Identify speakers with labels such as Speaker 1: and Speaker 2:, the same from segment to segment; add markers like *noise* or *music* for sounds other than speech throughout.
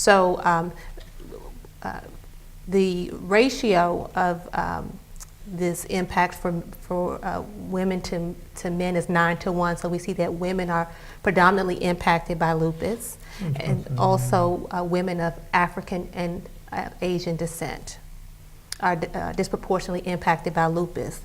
Speaker 1: So um, uh, the ratio of um, this impact for, for uh, women to, to men is nine to one. So we see that women are predominantly impacted by lupus and also uh, women of African and uh, Asian descent are uh, disproportionately impacted by lupus.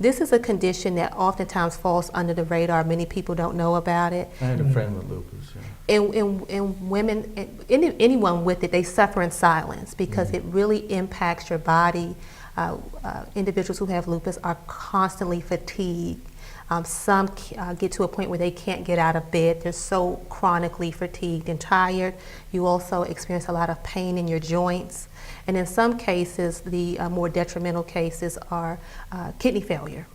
Speaker 1: This is a condition that oftentimes falls under the radar. Many people don't know about it.
Speaker 2: I
Speaker 3: Mm.
Speaker 2: had a friend with lupus. Yeah.
Speaker 1: And, and, and women, and any, anyone with it, they suffer in silence because it really impacts your body. Uh, uh, individuals who have lupus are constantly fatigued. Um, some c- uh, get to a point where they can't get out of bed. They're so chronically fatigued and tired. You also experience a lot of pain in your joints. And in some cases, the uh, more detrimental cases are uh, kidney failure.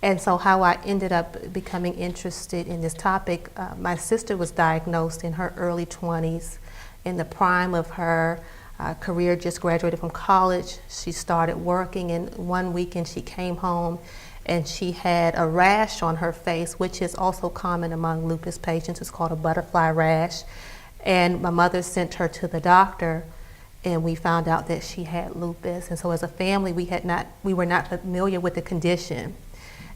Speaker 1: And so, how I ended up becoming interested in this topic, uh, my sister was diagnosed in her early 20s, in the prime of her uh, career, just graduated from college. She started working, and one weekend she came home and she had a rash on her face, which is also common among lupus patients. It's called a butterfly rash. And my mother sent her to the doctor and we found out that she had lupus and so as a family we had not we were not familiar with the condition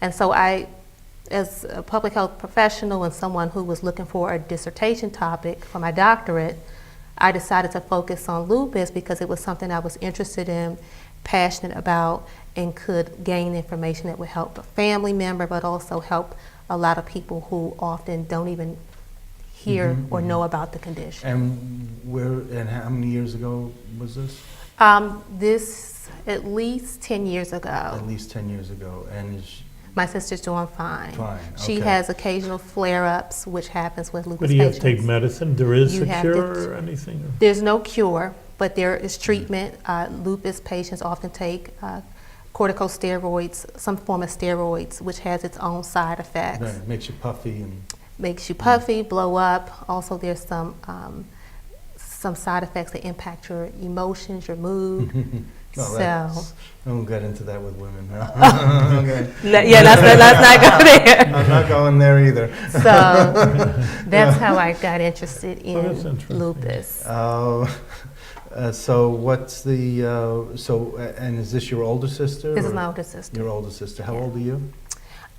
Speaker 1: and so i as a public health professional and someone who was looking for a dissertation topic for my doctorate i decided to focus on lupus because it was something i was interested in passionate about and could gain information that would help a family member but also help a lot of people who often don't even hear
Speaker 2: Mhm,
Speaker 1: or
Speaker 2: mhm.
Speaker 1: know about the condition
Speaker 2: And where and how many years ago was this?
Speaker 1: Um, this at least 10 years ago.
Speaker 2: At least ten years ago. And is
Speaker 1: My sister's doing fine.
Speaker 2: Fine,
Speaker 1: She
Speaker 2: okay.
Speaker 1: has occasional flare-ups, which happens with lupus
Speaker 3: But do you have to take
Speaker 1: patients.
Speaker 3: medicine? There is
Speaker 1: You
Speaker 3: a
Speaker 1: have to
Speaker 3: cure or anything? or-
Speaker 1: There's no cure, but there
Speaker 2: Mm-hmm.
Speaker 1: is treatment. Uh, lupus patients often take uh, corticosteroids, some form of steroids, which has its own side effects.
Speaker 2: right, Mm-hmm. it makes you
Speaker 1: *laughs*
Speaker 2: puffy and *laughs*
Speaker 1: Makes you puffy, blow up. Also, there's some um, some side effects that impact your emotions, your
Speaker 2: Hmm.
Speaker 1: mood.
Speaker 2: well,
Speaker 1: so.
Speaker 2: that's- I won't get into that with women.
Speaker 1: *laughs*
Speaker 2: No. *laughs* okay.
Speaker 1: No, yeah, let's, let's not go
Speaker 2: *laughs*
Speaker 1: there.
Speaker 2: I'm not going there either. *laughs*
Speaker 1: So that's how I got interested
Speaker 3: Oh, that's
Speaker 1: in
Speaker 3: interesting.
Speaker 1: lupus.
Speaker 2: Uh, uh, so what's the uh, so a- and is this your older sister?
Speaker 1: This is
Speaker 2: or
Speaker 1: my older sister.
Speaker 2: Your older sister. How
Speaker 1: Yeah.
Speaker 2: old are you?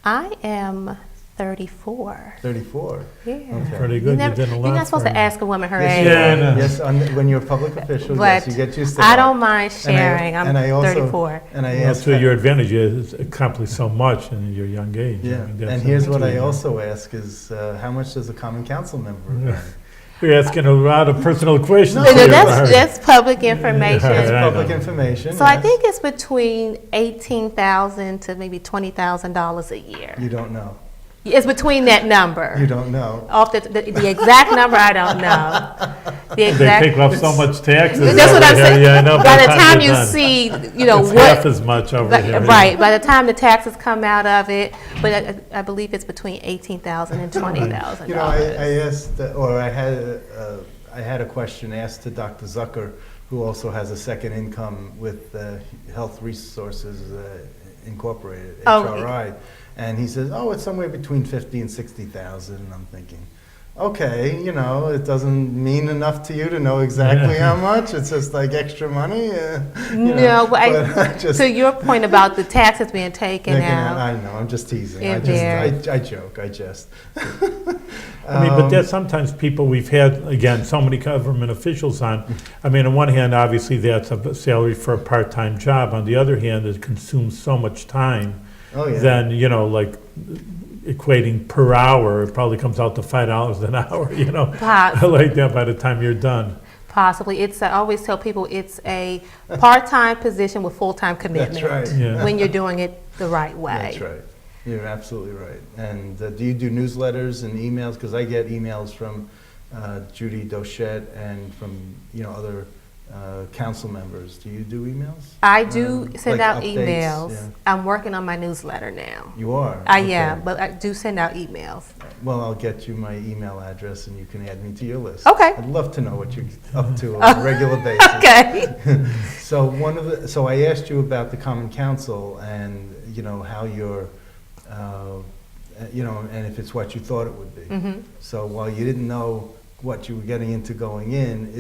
Speaker 1: I am 34.
Speaker 2: Thirty-four.
Speaker 1: Yeah.
Speaker 2: Okay.
Speaker 3: Pretty
Speaker 1: You
Speaker 3: good, you
Speaker 1: never,
Speaker 3: did a
Speaker 1: you're
Speaker 3: lot.
Speaker 1: not supposed
Speaker 3: for
Speaker 1: to
Speaker 3: her.
Speaker 1: ask a woman her
Speaker 2: Yes,
Speaker 1: age.
Speaker 2: you
Speaker 3: Yeah, I
Speaker 2: do.
Speaker 3: know.
Speaker 2: yes on, when you're a public official, yes,
Speaker 1: But
Speaker 2: you get used to
Speaker 1: I
Speaker 2: that.
Speaker 1: don't mind sharing. I, am
Speaker 2: and I also-
Speaker 1: 34.
Speaker 2: And I
Speaker 3: Well,
Speaker 2: asked
Speaker 3: to your advantage, you accomplished so much in your young age. I
Speaker 2: Yeah,
Speaker 3: mean, that's
Speaker 2: and here's what I
Speaker 3: amazing.
Speaker 2: also ask is, uh, how much does a common council member?
Speaker 3: Yeah.
Speaker 2: earn?
Speaker 3: You're asking a lot of personal questions.
Speaker 2: No,
Speaker 1: So
Speaker 3: here,
Speaker 1: that's,
Speaker 3: Barb.
Speaker 1: that's public information.
Speaker 3: Yeah,
Speaker 2: It's
Speaker 3: I
Speaker 2: public
Speaker 3: know.
Speaker 2: information.
Speaker 1: So I
Speaker 2: yes.
Speaker 1: think it's between 18000 to maybe $20,000 a year.
Speaker 2: You don't know,
Speaker 1: It's between that number.
Speaker 2: you don't know.
Speaker 1: Off the, the, the exact number, I don't
Speaker 2: *laughs*
Speaker 1: know. The
Speaker 3: They
Speaker 1: exact.
Speaker 3: take off so much taxes.
Speaker 1: That's what
Speaker 3: over
Speaker 1: I'm
Speaker 3: here.
Speaker 1: saying.
Speaker 3: Yeah, I know.
Speaker 1: By the time you
Speaker 3: you're done,
Speaker 1: see, you know
Speaker 3: It's half
Speaker 1: what,
Speaker 3: as much over here. yeah.
Speaker 1: right? By the time the taxes come out of it, but I, I believe it's between eighteen thousand and twenty thousand
Speaker 2: You know, I,
Speaker 1: dollars.
Speaker 2: I asked, uh, or I had, uh, I had a question asked to Dr. Zucker, who also has a second income with uh, Health Resources uh, Incorporated,
Speaker 1: Oh, he-
Speaker 2: HRI. And he says, oh, it's somewhere between 50 and 60,000. And I'm thinking, okay, you know, it doesn't mean enough to you to know exactly how much. It's just like extra money. Uh, you know,
Speaker 1: No, but I,
Speaker 2: just
Speaker 1: to your point about the taxes being taken
Speaker 2: thinking
Speaker 1: out,
Speaker 2: out- I know, I'm just teasing. I
Speaker 1: In
Speaker 2: just, I, I joke, I jest. *laughs*
Speaker 3: I mean,
Speaker 2: Um,
Speaker 3: but there's sometimes people we've had, again, so many government officials on. I mean, on one hand, obviously, that's a salary for a part-time job. On the other hand, it consumes so much time.
Speaker 2: Oh, yeah.
Speaker 3: Then, you know, like equating per hour, it probably comes out to five dollars an hour, *laughs* you know?
Speaker 1: Pots.
Speaker 3: Like that by the time you're done.
Speaker 1: possibly, it's, I always tell people, it's a part-time position with full-time
Speaker 2: That's
Speaker 1: commitment.
Speaker 2: right.
Speaker 3: Yeah.
Speaker 1: When you're doing it the right way.
Speaker 2: That's right. You're absolutely right. And uh, do you do newsletters and emails? Because I get emails from uh, Judy Dochette and from, you know, other uh, council members. Do you do emails?
Speaker 1: I do
Speaker 2: Um,
Speaker 1: send
Speaker 2: like
Speaker 1: out
Speaker 2: updates, yeah.
Speaker 1: emails. I'm working on my newsletter now.
Speaker 2: You are?
Speaker 1: I
Speaker 2: Okay.
Speaker 1: am, but I do send out emails.
Speaker 2: Well, I'll get you my email address and you can add me to your list. *laughs*
Speaker 1: Okay.
Speaker 2: I'd love to know what you're up to on a regular basis.
Speaker 1: Okay.
Speaker 2: So one of the, so I asked you about the Common Council and, you know, how your, uh, you know, and if it's what you thought it would be.
Speaker 1: hmm
Speaker 2: So while you didn't know what you were getting into going in,